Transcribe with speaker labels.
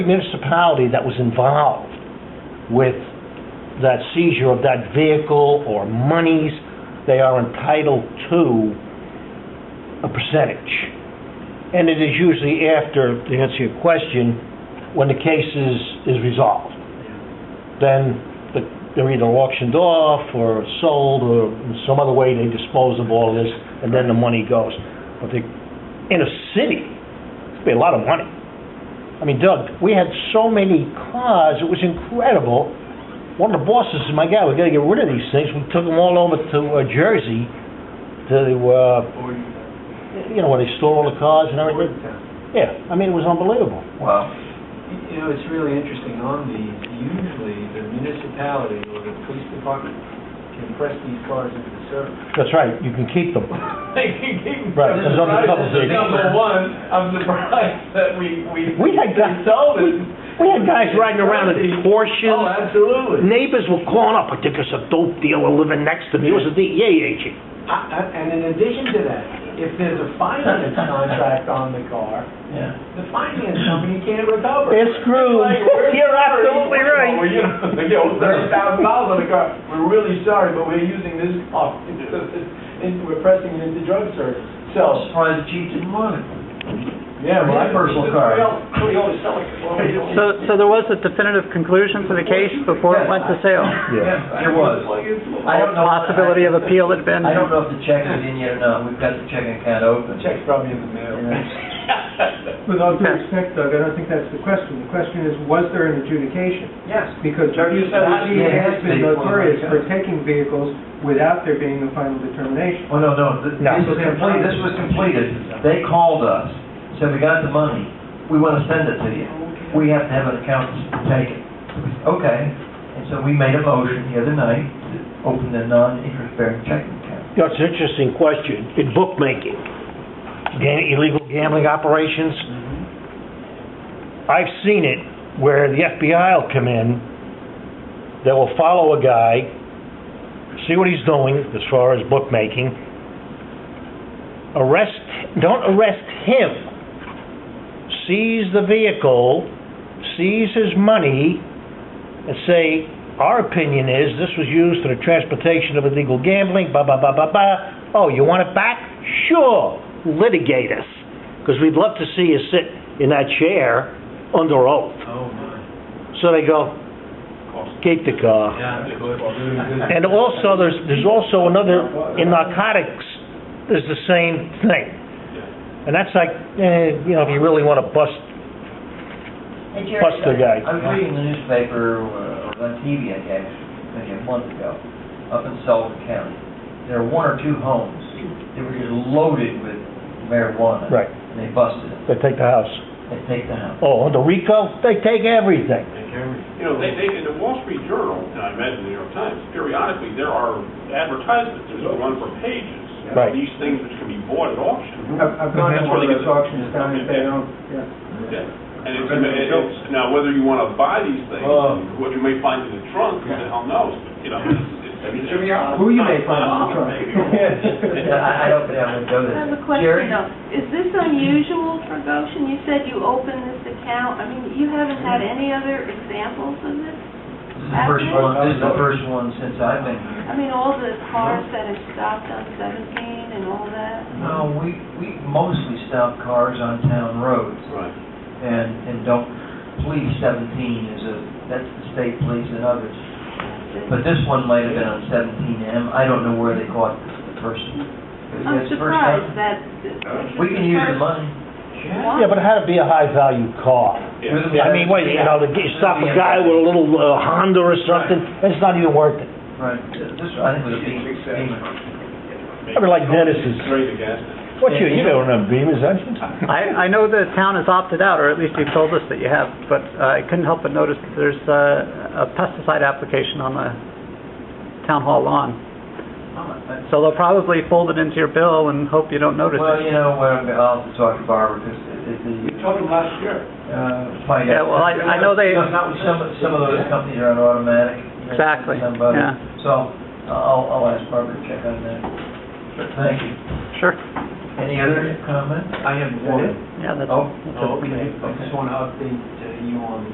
Speaker 1: municipality that was involved with that seizure of that vehicle or monies, they are entitled to a percentage. And it is usually after, to answer your question, when the case is, is resolved. Then the- they're either auctioned off or sold or in some other way they dispose of all this and then the money goes. But they, in a city, it'd be a lot of money. I mean, Doug, we had so many cars, it was incredible. One of the bosses said, my God, we gotta get rid of these things. We took them all over to uh, Jersey to, uh, you know, where they store all the cars and everything. Yeah, I mean, it was unbelievable.
Speaker 2: Well, you know, it's really interesting on these, usually the municipality or the police department can press these cars into the service.
Speaker 1: That's right, you can keep them.
Speaker 2: They can keep-
Speaker 1: Right,
Speaker 2: I'm
Speaker 1: it's on the
Speaker 2: surprised
Speaker 1: cover
Speaker 2: this is
Speaker 1: page.
Speaker 2: Number one, I'm surprised that we, we.
Speaker 1: We had guys-
Speaker 2: Sold it.
Speaker 1: We had guys riding around in
Speaker 2: Oh,
Speaker 1: Porsches.
Speaker 2: absolutely.
Speaker 1: Neighbors were calling up, I think it's a dope dealer living next to me. It was a DEA agent.
Speaker 2: I- I- And in addition to that, if there's a finance contract on the car, the finance company can't recover.
Speaker 1: It's screwed.
Speaker 2: Like, we're
Speaker 1: You're
Speaker 2: sorry.
Speaker 1: absolutely right.
Speaker 2: Well, you know, they get thirty thousand dollars on the car, we're really sorry, but we're using this car, and we're pressing it into drug service. So,
Speaker 3: surprised the chief didn't want it.
Speaker 2: yeah, well,
Speaker 3: My personal car.
Speaker 2: We all- We always sell it. Well, we don't-
Speaker 4: So, so there was a definitive conclusion to the case before it went to sale?
Speaker 3: There was. I don't know.
Speaker 4: Possibility of appeal had been...
Speaker 3: I don't know if the check is in yet or not, we've got the checking account
Speaker 2: The
Speaker 3: open.
Speaker 2: check's probably in the mail.
Speaker 5: With all due
Speaker 4: Okay.
Speaker 5: respect, Doug, I don't think that's the question. The question is, was there an adjudication?
Speaker 2: Yes.
Speaker 5: Because
Speaker 2: Doug, you
Speaker 5: UCC
Speaker 2: said that.
Speaker 5: has been
Speaker 3: Yeah, it's the-
Speaker 5: notorious for taking vehicles without there being a final determination.
Speaker 3: Oh, no, no, th-
Speaker 1: No.
Speaker 3: this was complete, this was completed, they called us, said, we got the money, we wanna send it to you. We have to have an accountant take it. Okay, and so we made a motion the other night to open the non-interest bearing checking account.
Speaker 1: You know, it's an interesting question. In bookmaking, gam- illegal gambling operations, I've seen it where the FBI will come in, they will follow a guy, see what he's doing as far as bookmaking, arrest, don't arrest him, seize the vehicle, seize his money, and say, our opinion is this was used for the transportation of illegal gambling, blah, blah, blah, blah, blah. Oh, you want it back? Sure, litigate us, because we'd love to see you sit in that chair under oath.
Speaker 2: Oh, my.
Speaker 1: So they go, keep the car. And also, there's, there's also another, in narcotics, there's the same thing. And that's like, eh, you know, if you really want to bust,
Speaker 3: Hey, Jerry,
Speaker 1: Bust the guy.
Speaker 3: I was reading the newspaper, uh, or on TV, I guess, maybe a month ago, up in Sullivan County. There are one or two homes that were just loaded with marijuana.
Speaker 1: Right.
Speaker 3: And they busted it.
Speaker 1: they take the house.
Speaker 3: They take the house.
Speaker 1: Oh, under RICO, they take everything.
Speaker 6: You know, they, they, in the Wall Street Journal, and I imagine the New York Times, periodically, there are advertisements, there's a run for pages. of
Speaker 1: Right.
Speaker 6: These things which can be bought at auction.
Speaker 5: I've I've gone to
Speaker 6: That's
Speaker 5: one of
Speaker 6: where they
Speaker 5: those
Speaker 6: get the-
Speaker 5: auctions down in Bayonne, yeah.
Speaker 6: And it's, and it's, now, whether you wanna buy these things,
Speaker 5: Oh.
Speaker 6: what you may find in the trunk, who the hell knows, but, you know, it's, it's.
Speaker 5: Who you may find in the trunk.
Speaker 3: I, I don't think I'm gonna go
Speaker 7: I
Speaker 3: there.
Speaker 7: have a
Speaker 3: Jerry?
Speaker 7: question though. Is this unusual for Goshen? You said you opened this account. I mean, you haven't had any other examples of this?
Speaker 3: This is the first one, this is the first one since I've been here.
Speaker 7: I mean, all the cars that have stopped on 17 and all that?
Speaker 3: No, we, we mostly stop cars on town roads
Speaker 6: Right.
Speaker 3: and, and don't, police seventeen is a, that's the state police and others. But this one might have been on seventeen M, I don't know where they caught the person. It
Speaker 7: I'm
Speaker 3: was the first time.
Speaker 7: surprised that... this is
Speaker 3: We can use the
Speaker 7: first
Speaker 3: money.
Speaker 7: one.
Speaker 1: Yeah, but it had to be a high-value car.
Speaker 6: Yeah.
Speaker 1: I mean, wait, you know, the- you stop a guy with a little uh, Honda or something, it's not even worth it.
Speaker 3: Right, this, I think was a Beamer,
Speaker 1: I
Speaker 3: Beamer.
Speaker 1: mean, like Dennis's.
Speaker 6: Straight to gas station.
Speaker 1: What you, you don't have Beamers, don't you?
Speaker 4: I, I know the town has opted out, or at least you've told us that you have, but uh, I couldn't help but notice that there's uh, a pesticide application on the town hall lawn. So they'll probably fold it into your bill and hope you don't notice
Speaker 3: Well,
Speaker 4: it.
Speaker 3: you know, well, I'll talk to Barbara, because it,
Speaker 2: We
Speaker 3: it, the,
Speaker 2: talked last year.
Speaker 3: uh, find
Speaker 4: Yeah,
Speaker 3: out.
Speaker 4: well, I, I know they,
Speaker 3: No, not with Some, some of those companies are on automatic. you know,
Speaker 4: Exactly,
Speaker 3: some of them.
Speaker 4: yeah.
Speaker 3: So I'll, I'll ask Barbara to check on that. But Thank you.
Speaker 4: sure.
Speaker 3: Any other comment?
Speaker 2: I have
Speaker 3: Is that it?
Speaker 2: one.
Speaker 4: Yeah, that's,
Speaker 3: Oh,
Speaker 4: that's
Speaker 2: Okay,
Speaker 4: it.
Speaker 2: I just want to update uh, you on